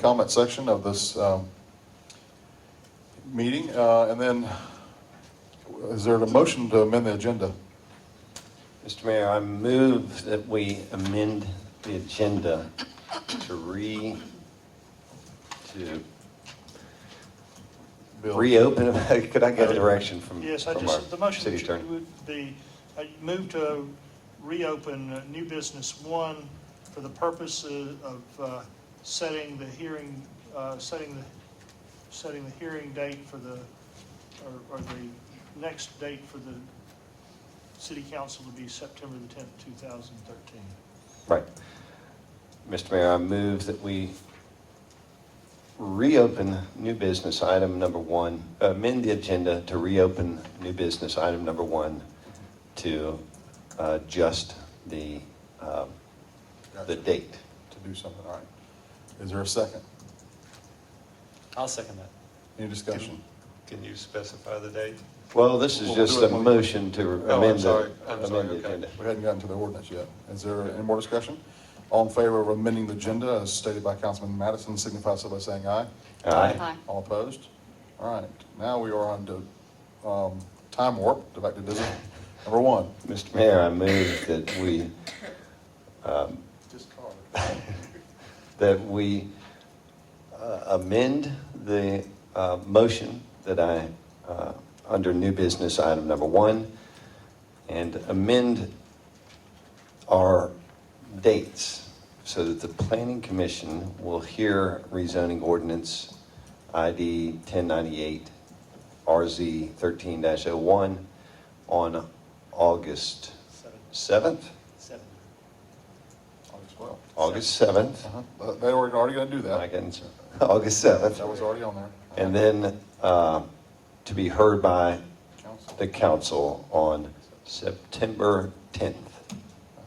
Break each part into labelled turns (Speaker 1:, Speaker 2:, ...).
Speaker 1: comment section of this um, meeting. Uh, And then, is there a motion to amend the agenda?
Speaker 2: Mr. Mayor, I move that we amend the agenda to re, to
Speaker 1: Bill?
Speaker 2: reopen, could I get a direction from?
Speaker 3: Yes, I
Speaker 2: from our
Speaker 3: just, the motion
Speaker 2: city
Speaker 3: that
Speaker 2: attorney?
Speaker 3: you would be, I move to reopen uh, new business one for the purpose uh, of uh, setting the hearing, uh, setting the, setting the hearing date for the, or- or the next date for the city council to be September the tenth, two thousand thirteen.
Speaker 2: Right. Mr. Mayor, I move that we reopen new business item number one, amend the agenda to reopen new business item number one to uh, just the, uh, the date.
Speaker 1: To do something, all right. Is there a second?
Speaker 4: I'll second that.
Speaker 1: Any discussion?
Speaker 5: Can you specify the date?
Speaker 2: Well, this is
Speaker 1: We'll
Speaker 2: just
Speaker 1: do
Speaker 2: a
Speaker 1: it when-
Speaker 2: motion to
Speaker 5: I'm
Speaker 2: amend the,
Speaker 5: sorry. I'm sorry,
Speaker 2: amend the
Speaker 5: okay.
Speaker 2: agenda.
Speaker 1: We hadn't gotten to the ordinance yet. Is there any more discussion? All in favor of amending the agenda as stated by Councilman Madison, signify so by saying aye.
Speaker 2: Aye.
Speaker 1: All opposed? All right, now we are on to um, time warp, go back to visit number one.
Speaker 2: Mr. Mayor, I move that we, um, that we uh, amend the uh, motion that I, uh, under new business item number one, and amend our dates so that the planning commission will hear rezoning ordinance ID 1098 RZ 13-01 on August 7th,
Speaker 4: Seven.
Speaker 1: August 12th.
Speaker 2: August 7th.
Speaker 1: Uh-huh. Uh, They were already going to do
Speaker 2: I
Speaker 1: that.
Speaker 2: can, August 7th.
Speaker 1: That was already on there.
Speaker 2: And then uh, to be heard by
Speaker 1: Council.
Speaker 2: the council on September 10th.
Speaker 1: That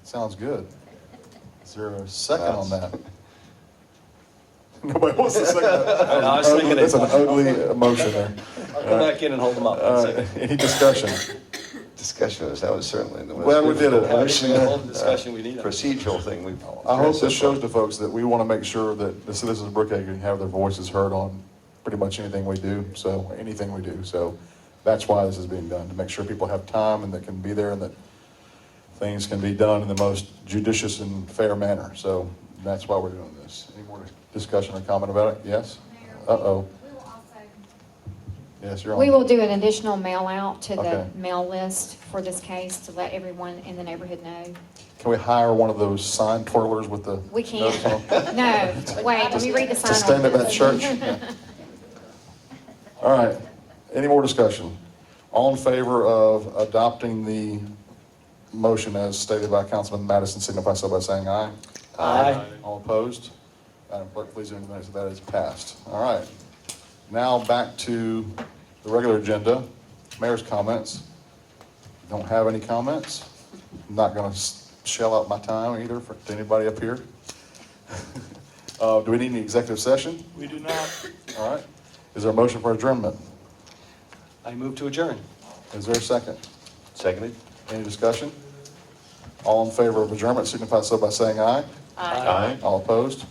Speaker 1: Sounds good. Is there a second on that? Nobody wants to second that.
Speaker 4: No, I was thinking it.
Speaker 1: That's an ugly motion there.
Speaker 4: I'll go back in and hold them up. One
Speaker 1: Uh,
Speaker 4: second.
Speaker 1: Any discussion?
Speaker 2: Discussion, was- that was certainly the most.
Speaker 1: Well, we did it.
Speaker 2: difficult
Speaker 1: Actually,
Speaker 2: motion,
Speaker 4: all the discussion we need.
Speaker 2: uh, Procedural thing we've.
Speaker 1: I hope this shows to folks that we want to make sure that the citizens of Brookhaven can have their voices heard on pretty much anything we do, so, anything we do. So that's why this is being done, to make sure people have time and that can be there and that things can be done in the most judicious and fair manner. So that's why we're doing this. Any more discussion or comment about it? Yes?
Speaker 6: Mayor, we-
Speaker 1: Uh-oh.
Speaker 6: We will also
Speaker 1: Yes, you're on.
Speaker 7: We will do an additional mail out to the
Speaker 1: Okay.
Speaker 7: mail list for this case to let everyone in the neighborhood know.
Speaker 1: Can we hire one of those sign twirlers with the?
Speaker 7: We
Speaker 1: notice on
Speaker 7: can't.
Speaker 1: them?
Speaker 7: No, wait, let me read the sign.
Speaker 1: To stand at that
Speaker 7: ordinance.
Speaker 1: church? Yeah. All right, any more discussion? All in favor of adopting the motion as stated by Councilman Madison, signify so by saying aye.
Speaker 4: Aye.
Speaker 1: All opposed? Madam Clerk, please enter the minutes that is passed. All right, now back to the regular agenda, mayor's comments. Don't have any comments. I'm Not gonna s- shell out my time either for, to anybody up here. Uh, do we need an executive session?
Speaker 3: We do not
Speaker 1: All right. Is there a motion for adjournment?
Speaker 4: I move to adjourn.
Speaker 1: Is there a second?
Speaker 2: Seconded?
Speaker 1: Any discussion? All in favor of adjournment signify so by saying aye.
Speaker 2: Aye.
Speaker 1: All opposed?